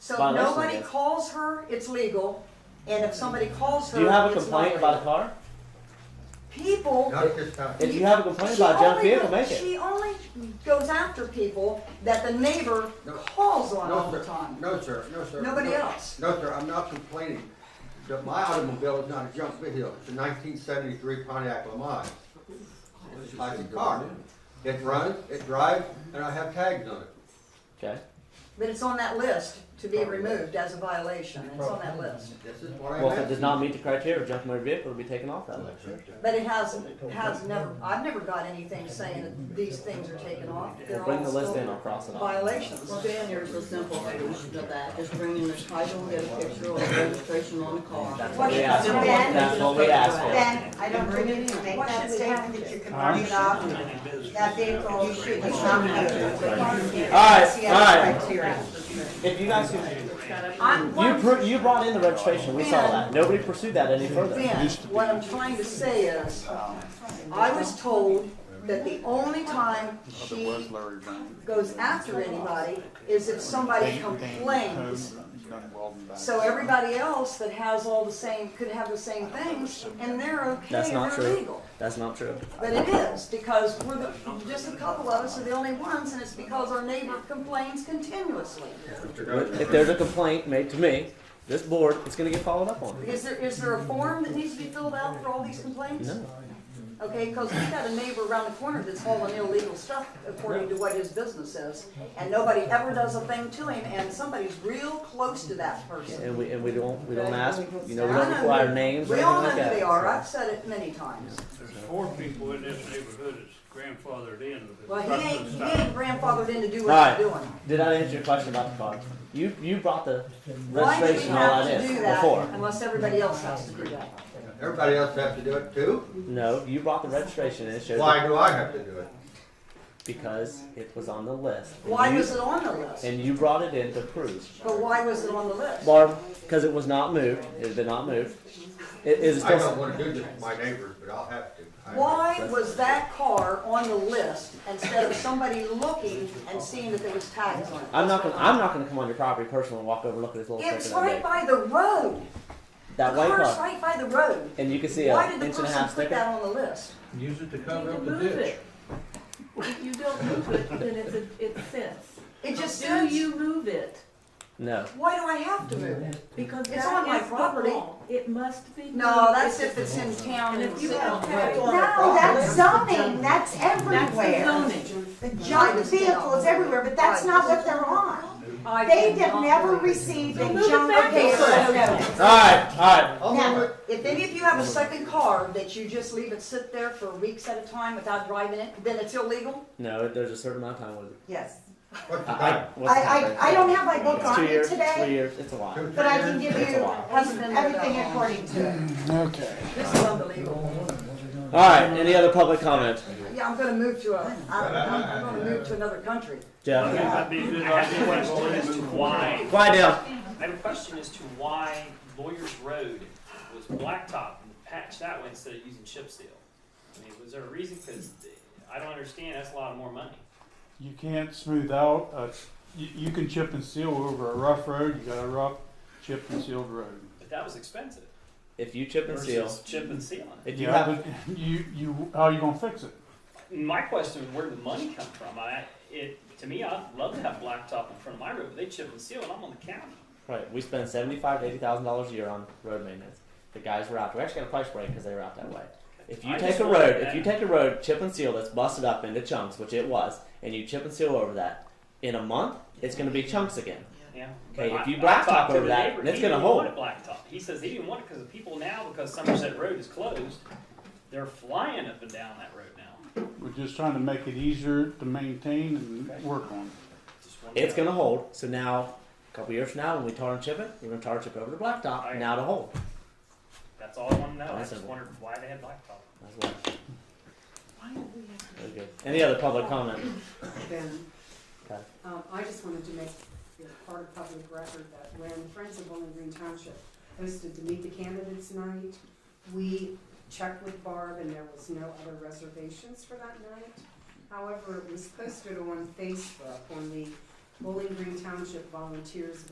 So if Violation, nobody yes. calls her, it's legal, and if somebody calls her, Do you have a it's complaint not about a legal. car? People. Not this time. If you have a complaint She about a junk only vehicle, go- make it. She only goes after people that the neighbor No. calls on No, all the sir, time. no, sir, no, sir. Nobody No. else. No, sir, I'm not complaining. The- My automobile is not a junk vehicle, it's a nineteen seventy-three Pontiac Lamont. It's a classic car. It runs, it drives, and I have tags on it. Okay. But it's on that list to be removed as a violation. It's on that list. This is what I'm Well, if it does not asking. meet the criteria, junk motor vehicle will be taken off that list. But it has, has never, I've never got anything saying that these things are taken off. We'll They're bring the all list still in, I'll cross it off. Violations. Well, Dan, there's a simple solution to that, just bring in the title, get a picture of the registration on the car. That's what we asked for. That's what we asked for. Then, I don't believe you can make that statement that you can mark it off, that vehicle, you should, you not have it. If you guys could, I'm, what you I'm- pr- you brought in the registration, we saw that. Nobody pursued that any further. Ben, what I'm trying to say is, I was told that the only time she goes after anybody is if somebody complains. So everybody else that has all the same, could have the same things, and they're okay, That's not they're true. legal. That's not true. But it is, because we're the, just a couple of us are the only ones, and it's because our neighbor complains continuously. If there's a complaint made to me, this board is gonna get followed up on. Is there, is there a form that needs to be filled out for all these complaints? No. Okay, because we got a neighbor around the corner that's hauling illegal stuff according to what his business is, and nobody ever does a thing to him, and somebody's real close to that person. And we, and we don't, we don't ask, you know, we I don't know require who- names or We anything all know like who they that. are, I've said it many times. There's four people in this neighborhood that's grandfathered in. with Well, he construction ain't, he stop. ain't grandfathered in to do what Alright. he's doing. Did I answer your question about the car? You, you brought the Why do we registration and have all to that do in that before. unless everybody else has to do that? Everybody else have to do it too? No, you brought the registration and it showed Why up do I have to do it? because it was on the list. And Why you- was it on the list? And you brought it in to prove. But why was it on the list? Barb, because it was not moved, it had been not moved. It is I don't still, wanna do this to my neighbors, but I'll have to. I- Why was that car on the list instead of somebody looking and seeing that there was tags on it? I'm not gonna, I'm not gonna come on your property personally and walk over and look at this little It's sticker right that big. by the road. That The white car's car, right by the road. and you can see Why a did the inch and a person half put sticker. that on the list? Use it to You can move it. If you don't move it, then it's a, it sits. It just Do says, you move it? No, why do I have to move it? Because It's on that my is the property. law. It must be. No, moved. that's if it's in town And and if you city. have tags on it, No, Oh, that's zoning, that's that's the everywhere. zoning. The junk vehicle is everywhere, but that's not what they're on. I They did have not never move it. received a junk Okay, vehicle. so- alright, alright, I'll Now, move it. If any of you have a second car that you just leave it sit there for weeks at a time without driving it, then it's illegal? no, there's a certain amount of time with it. Yes. What's the I, time? I, what's I, the time? I, I don't have my book It's on two me years, three today, years, it's a lot. Two, but I three can give It's a you lot. Hasn't been there that everything long. according to it. This is unbelievable. Alright, any other public comment? Yeah, I'm gonna move to a, I'm, I'm gonna move to another country. I think Jeff? that'd be a good I have a idea. question as to why, Quiet down. I have a question as to why Lawyer's Road was blacktop and patched that way instead of using chip seal. I mean, was there a reason? Because I don't understand, that's a lot more money. You can't smooth out, uh, you, you can chip and seal over a rough road, you got a rough chip and sealed road. But that was expensive If you chip and seal, versus chip and sealing. if you Yeah, have, but You, you, how you gonna fix it? My question is where did the money come from? I, it, to me, I'd love to have blacktop in front of my road, but they chip and seal and I'm on the county. right, we spend seventy-five to eighty thousand dollars a year on road maintenance. The guys were out, we actually got a price break because they were out that way. If you I take just a want road, if that. you take a road chip and seal that's busted up into chunks, which it was, and you chip and seal over that, in a month it's going to be chunks again. Yeah. Okay, But if you I- I blacktop talked to over the that, neighbor, that's he gonna didn't hold. want it blacktop. He says he didn't want it because the people now, because Somerset Road is closed, they're flying up and down that road now. We're just trying to make it easier to maintain and work on. Just one It's guy. going to hold. So now, a couple years from now, when we tar and chip it, we're going to tar and chip over the blacktop. Alright. Now to hold. That's all I want to know. I That's just simple. wondered why they had blacktop. That's why. Very good. Any other public comment? Ben. Okay. Um, I just wanted to make it part of public record that when Friends of Bowling Green Township hosted to meet the candidates night, we checked with Barb and there was no other reservations for that night. However, it was posted on Facebook on the Bowling Green Township Volunteers